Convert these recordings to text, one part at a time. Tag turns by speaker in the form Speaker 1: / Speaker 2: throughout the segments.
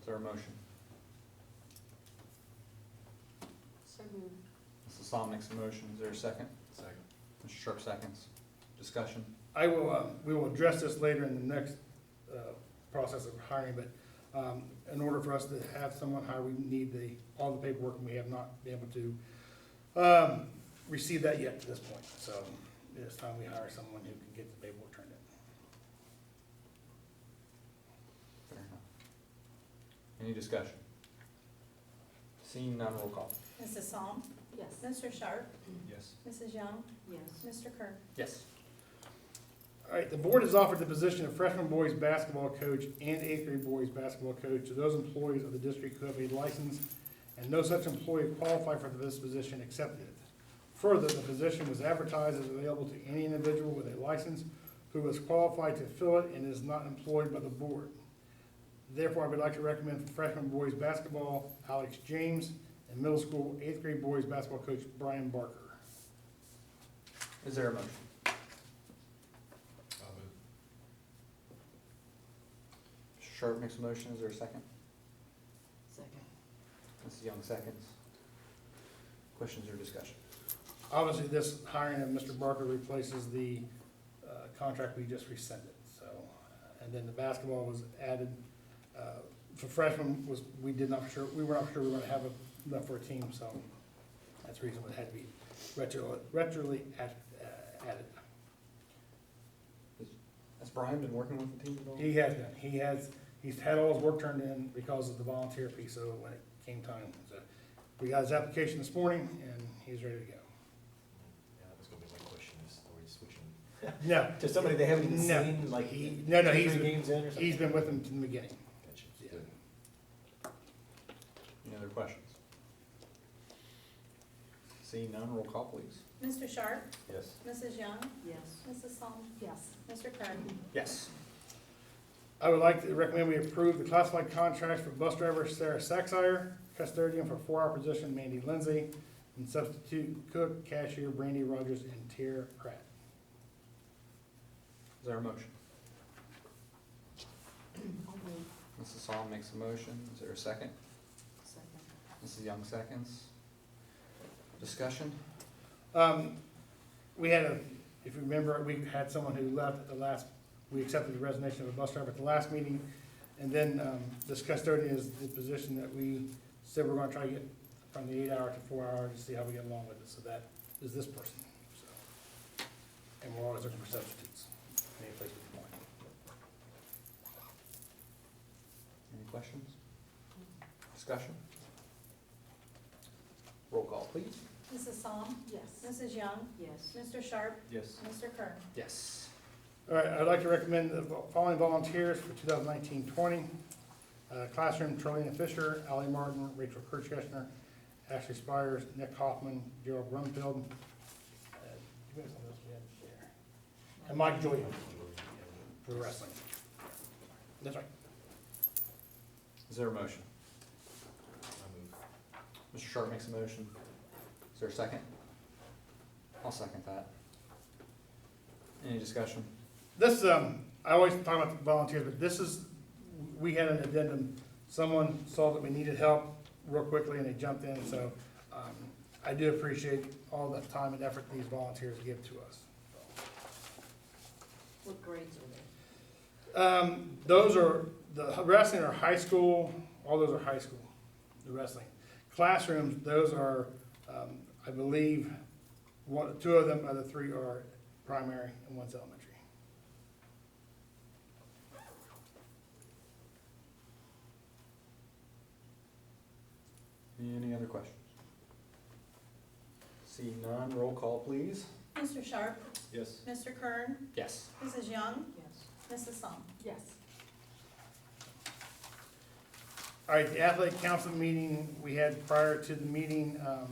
Speaker 1: Is there a motion?
Speaker 2: So moved.
Speaker 1: Mrs. Psalm makes a motion. Is there a second?
Speaker 3: Second.
Speaker 1: Mr. Sharp seconds. Discussion?
Speaker 4: I will, uh, we will address this later in the next uh, process of hiring, but um, in order for us to have someone hired, we need the, all the paperwork, and we have not been able to um, receive that yet to this point. So it's time we hire someone who can get the paperwork turned in.
Speaker 1: Fair enough. Any discussion? Seeing none, roll call.
Speaker 5: Mrs. Psalm?
Speaker 2: Yes.
Speaker 5: Mr. Sharp?
Speaker 3: Yes.
Speaker 5: Mrs. Young?
Speaker 2: Yes.
Speaker 5: Mr. Kerr?
Speaker 1: Yes.
Speaker 4: All right, the board has offered the position of freshman boys basketball coach and eighth grade boys basketball coach to those employees of the district who have a license, and no such employee qualified for this position accepted. Further, the position was advertised as available to any individual with a license who is qualified to fill it and is not employed by the board. Therefore, I would like to recommend for freshman boys basketball Alex James and middle school eighth grade boys basketball coach Brian Barker.
Speaker 1: Is there a motion?
Speaker 3: I'll move.
Speaker 1: Mr. Sharp makes a motion. Is there a second?
Speaker 2: Second.
Speaker 1: Mrs. Young seconds. Questions or discussion?
Speaker 4: Obviously, this hiring of Mr. Barker replaces the uh, contract we just rescinded, so. uh, And then the basketball was added, uh, for freshman was, we did not sure, we were not sure we were gonna have enough for a team, so that's the reason it had to be retro, retroly add- uh, added.
Speaker 1: Has Brian been working with the team at all?
Speaker 4: He has done, he has, he's had all his work turned in because of the volunteer piece, so when it came time, so. We got his application this morning, and he's ready to go.
Speaker 3: Yeah, that was gonna be my question, is are we switching
Speaker 4: No,
Speaker 3: to somebody they haven't even
Speaker 4: No.
Speaker 3: seen, like,
Speaker 4: He- no, no,
Speaker 3: two,
Speaker 4: he's-
Speaker 3: three games in or something?
Speaker 4: he's been with him from the beginning.
Speaker 3: Gotcha.
Speaker 4: yeah.
Speaker 3: Good.
Speaker 1: Any other questions? Seeing none, roll call please.
Speaker 5: Mr. Sharp?
Speaker 3: Yes.
Speaker 5: Mrs. Young?
Speaker 2: Yes.
Speaker 5: Mrs. Psalm?
Speaker 2: Yes.
Speaker 5: Mr. Kerr?
Speaker 1: Yes.
Speaker 4: I would like to recommend we approve the classified contracts for bus driver Sarah Saxire, custodian for four-hour position Mandy Lindsay, and substitute cook, cashier Brandy Rogers, and Tier Pratt.
Speaker 1: Is there a motion?
Speaker 2: I'll move.
Speaker 1: Mrs. Psalm makes a motion. Is there a second?
Speaker 2: Second.
Speaker 1: Mrs. Young seconds. Discussion?
Speaker 4: Um, we had a, if you remember, we had someone who left at the last, we accepted the resignation of a bus driver at the last meeting. And then, um, this custodian is the position that we said we're gonna try to get from the eight hour to four hour to see how we get along with it, so that is this person, so. And we're always looking for substitutes, any place we can find.
Speaker 1: Any questions? Discussion? Roll call, please.
Speaker 5: Mrs. Psalm?
Speaker 2: Yes.
Speaker 5: Mrs. Young?
Speaker 2: Yes.
Speaker 5: Mr. Sharp?
Speaker 3: Yes.
Speaker 5: Mr. Kerr?
Speaker 1: Yes.
Speaker 4: All right, I'd like to recommend the following volunteers for 2019-20: Uh, Classroom, Charlene Fisher, Ally Martin, Rachel Kirchgessner, Ashley Spires, Nick Hoffman, Gerald Brumfield. uh, who else was we had there? And Mike Julian for wrestling. That's right.
Speaker 1: Is there a motion?
Speaker 3: I'll move.
Speaker 1: Mr. Sharp makes a motion. Is there a second? I'll second that. Any discussion?
Speaker 4: This, um, I always talk about the volunteers, but this is, we had an addendum. Someone saw that we needed help real quickly and they jumped in, so, um, I do appreciate all the time and effort these volunteers give to us.
Speaker 2: What grades are
Speaker 4: Um, those are, the wrestling are high school, all those are high school, the wrestling. Classrooms, those are, um, I believe, one, two of them, other three are primary and one's elementary.
Speaker 1: Any other questions? See none, roll call, please.
Speaker 5: Mr. Sharp?
Speaker 3: Yes.
Speaker 5: Mr. Kerr?
Speaker 1: Yes.
Speaker 5: Mrs. Young?
Speaker 2: they? Yes.
Speaker 5: Mrs. Psalm?
Speaker 2: Yes.
Speaker 4: All right, the athletic council meeting we had prior to the meeting, um,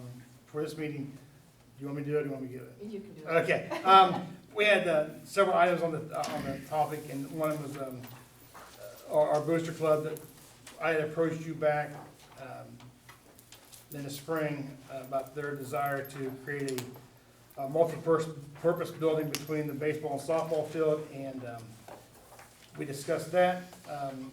Speaker 4: for this meeting, do you want me to do it or do you want me to give it?
Speaker 2: You can do it.
Speaker 4: Okay, um, we had, uh, several items on the, uh, on the topic, and one of them was, um, uh, our, our booster club, that I had approached you back, um, in the spring, uh, about their desire to create a, a multi-purpose building between the baseball and softball field, and, um, we discussed that, um,